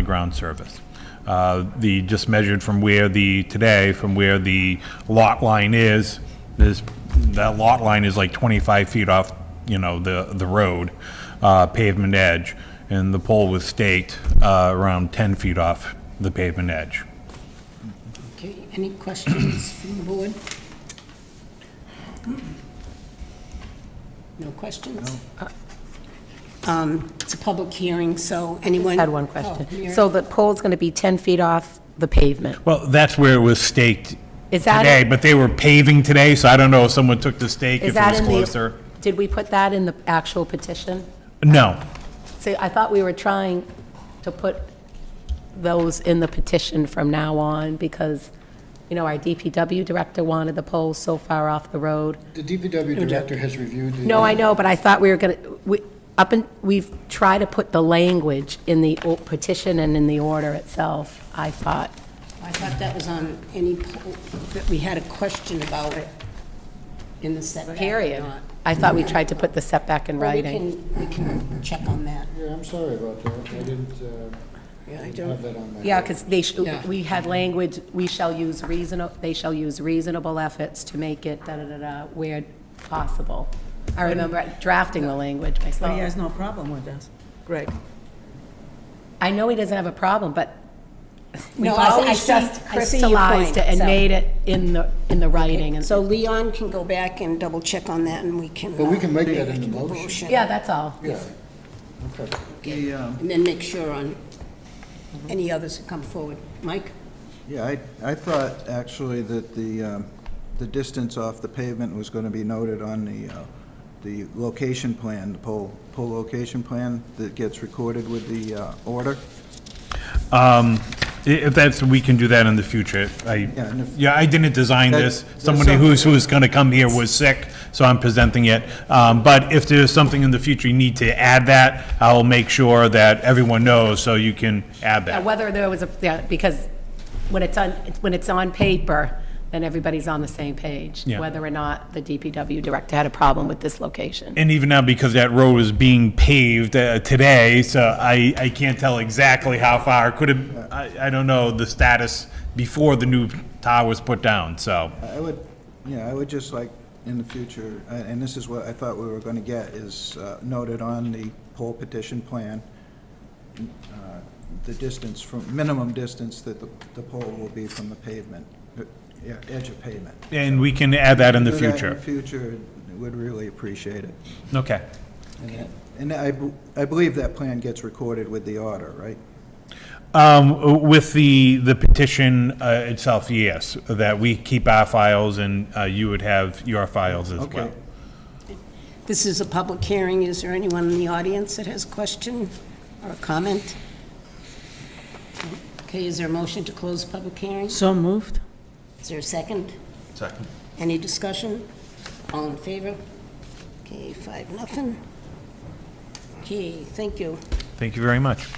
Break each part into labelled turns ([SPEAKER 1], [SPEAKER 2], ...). [SPEAKER 1] the ground surface. Uh, The, just measured from where the, today, from where the lot line is, this, that lot line is like 25 feet off, you know, the, the road uh, pavement edge, and the pole was staked uh, around 10 feet off the pavement edge.
[SPEAKER 2] Okay, any questions from the board? No questions? Uh, Um, It's a public hearing, so anyone?
[SPEAKER 3] Had one
[SPEAKER 2] Oh,
[SPEAKER 3] question.
[SPEAKER 2] Mira.
[SPEAKER 3] So the pole's going to be 10 feet off the pavement.
[SPEAKER 1] Well, that's where it was staked
[SPEAKER 3] Is that-
[SPEAKER 1] today, but they were paving today, so I don't know if someone took the stake,
[SPEAKER 3] Is
[SPEAKER 1] if it
[SPEAKER 3] that
[SPEAKER 1] was
[SPEAKER 3] in
[SPEAKER 1] closer.
[SPEAKER 3] the? Did we put that in the actual petition?
[SPEAKER 1] No,
[SPEAKER 3] See, I thought we were trying to put those in the petition from now on because, you know, our DPW director wanted the poles so far off the road.
[SPEAKER 4] The DPW director has reviewed the...
[SPEAKER 3] No, I know, but I thought we were going to, up and, we've tried to put the language in the o- petition and in the order itself, I thought.
[SPEAKER 2] I thought that was on any, po- that we had a question about in the setback. or
[SPEAKER 3] Period.
[SPEAKER 2] not.
[SPEAKER 3] I thought we tried to put the setback in
[SPEAKER 2] Well, we
[SPEAKER 3] writing.
[SPEAKER 2] can- We can check on that.
[SPEAKER 4] Yeah, I'm sorry about that. I didn't uh,
[SPEAKER 2] Yeah, I
[SPEAKER 4] didn't
[SPEAKER 2] don't-
[SPEAKER 4] have that on my...
[SPEAKER 3] Yeah, because they, sh-
[SPEAKER 2] Yeah.
[SPEAKER 3] we had language, we shall use reasonable, they shall use reasonable efforts to make it da-da-da-da where possible. I remember drafting the language
[SPEAKER 5] But he has
[SPEAKER 3] myself.
[SPEAKER 5] no problem with us, Greg.
[SPEAKER 3] I know he doesn't have a problem, but we've
[SPEAKER 2] No, I- I
[SPEAKER 3] always
[SPEAKER 2] see-
[SPEAKER 3] just
[SPEAKER 2] I see your point,
[SPEAKER 3] crystallized it and
[SPEAKER 2] so-
[SPEAKER 3] made it in the, in the writing, and
[SPEAKER 2] So
[SPEAKER 3] so,
[SPEAKER 2] Leon can go back and double check on that and we can.
[SPEAKER 4] But we
[SPEAKER 2] uh,
[SPEAKER 4] can make that in the
[SPEAKER 2] make
[SPEAKER 4] motion.
[SPEAKER 3] yeah, that's all.
[SPEAKER 4] Yeah, okay.
[SPEAKER 6] The, um,
[SPEAKER 2] And then make sure on any others that come forward. Mike?
[SPEAKER 6] Yeah, I, I thought actually that the, um, the distance off the pavement was going to be noted on the, uh, the location plan, the pole, pole location plan that gets recorded with the uh, order.
[SPEAKER 1] I- If that's, we can do that in the future. I,
[SPEAKER 6] Yeah, and if-
[SPEAKER 1] yeah, I didn't design
[SPEAKER 6] That-
[SPEAKER 1] this.
[SPEAKER 6] there's
[SPEAKER 1] Somebody
[SPEAKER 6] some-
[SPEAKER 1] who's, who's gonna come here was sick, so I'm presenting it. Um, but if there's something in the future you need to add that, I'll make sure that everyone knows, so you can add
[SPEAKER 3] Yeah,
[SPEAKER 1] that.
[SPEAKER 3] Uh, Whether there was a, yeah, because when it's on, when it's on paper, then everybody's on the same page,
[SPEAKER 1] Yeah.
[SPEAKER 3] whether or not the DPW director had a problem with this location.
[SPEAKER 1] And even now, because that road is being paved uh, today, so I, I can't tell exactly how far. Could have, I, I don't know the status before the new tower was put down, so.
[SPEAKER 6] I would, yeah, I would just like, in the future, a- and this is what I thought we were going to get, is uh, noted on the pole petition plan, uh, the distance from, minimum distance that the, the pole will be from the pavement, uh, yeah, edge of pavement.
[SPEAKER 1] And we can add that in the
[SPEAKER 6] Do that In
[SPEAKER 1] future.
[SPEAKER 6] the future, would really appreciate it.
[SPEAKER 1] Okay.
[SPEAKER 6] And I, b- I believe that plan gets recorded with the order, right?
[SPEAKER 1] Um, With the, the petition uh, itself, yes, that we keep our files and uh, you would have your files as well.
[SPEAKER 6] Okay.
[SPEAKER 2] This is a public hearing. Is there anyone in the audience that has a question or a comment? Okay, is there a motion to close the public hearing?
[SPEAKER 5] So moved?
[SPEAKER 2] Is there a second? Second. Any discussion? All in favor? Okay, five, nothing. Okay, thank you.
[SPEAKER 1] Thank you very much.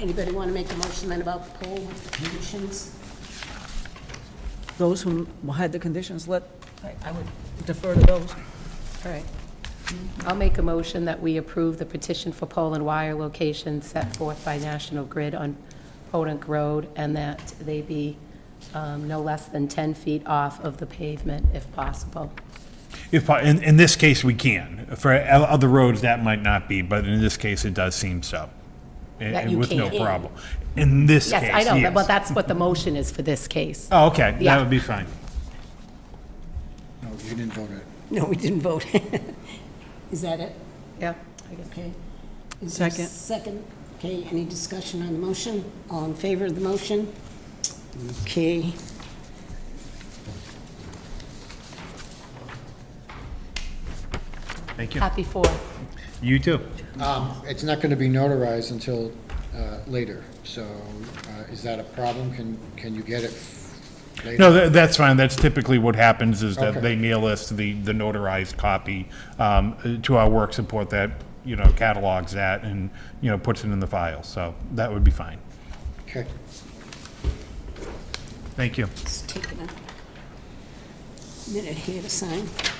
[SPEAKER 2] Anybody want to make a motion then about the poll conditions?
[SPEAKER 5] Those who had the conditions, let, I- I would defer to those.
[SPEAKER 3] All right. I'll make a motion that we approve the petition for pole and wire locations set forth by National Grid on Podunk Road, and that they be um, no less than 10 feet off of the pavement if possible.
[SPEAKER 1] If, I- in, in this case, we can. For o- other roads, that might not be, but in this case, it does seem so. And-
[SPEAKER 3] That
[SPEAKER 1] and
[SPEAKER 3] you
[SPEAKER 1] With no
[SPEAKER 3] can.
[SPEAKER 1] problem. In this case,
[SPEAKER 3] Yes,
[SPEAKER 1] yes.
[SPEAKER 3] I know, but that's what the motion is for this case.
[SPEAKER 1] Oh, okay, that
[SPEAKER 3] Yeah.
[SPEAKER 1] would be fine.
[SPEAKER 4] No, you didn't vote it.
[SPEAKER 2] No, we didn't vote. Is that it?
[SPEAKER 3] Yeah.
[SPEAKER 2] Okay. Is there a
[SPEAKER 5] Second.
[SPEAKER 2] Second. Okay, any discussion on the motion? All in favor of the motion? Okay.
[SPEAKER 1] Thank you.
[SPEAKER 3] Happy Fourth.
[SPEAKER 1] You too.
[SPEAKER 4] Um, It's not going to be notarized until uh, later, so uh, is that a problem? Can, can you get it later?
[SPEAKER 1] No, tha- that's fine. That's typically what happens is that
[SPEAKER 4] Okay.
[SPEAKER 1] they mail us the, the notarized copy um, to our work support that, you know, catalogs that and, you know, puts it in the file. So that would be fine.
[SPEAKER 4] Okay.
[SPEAKER 1] Thank you.
[SPEAKER 2] It's taken a minute here to sign.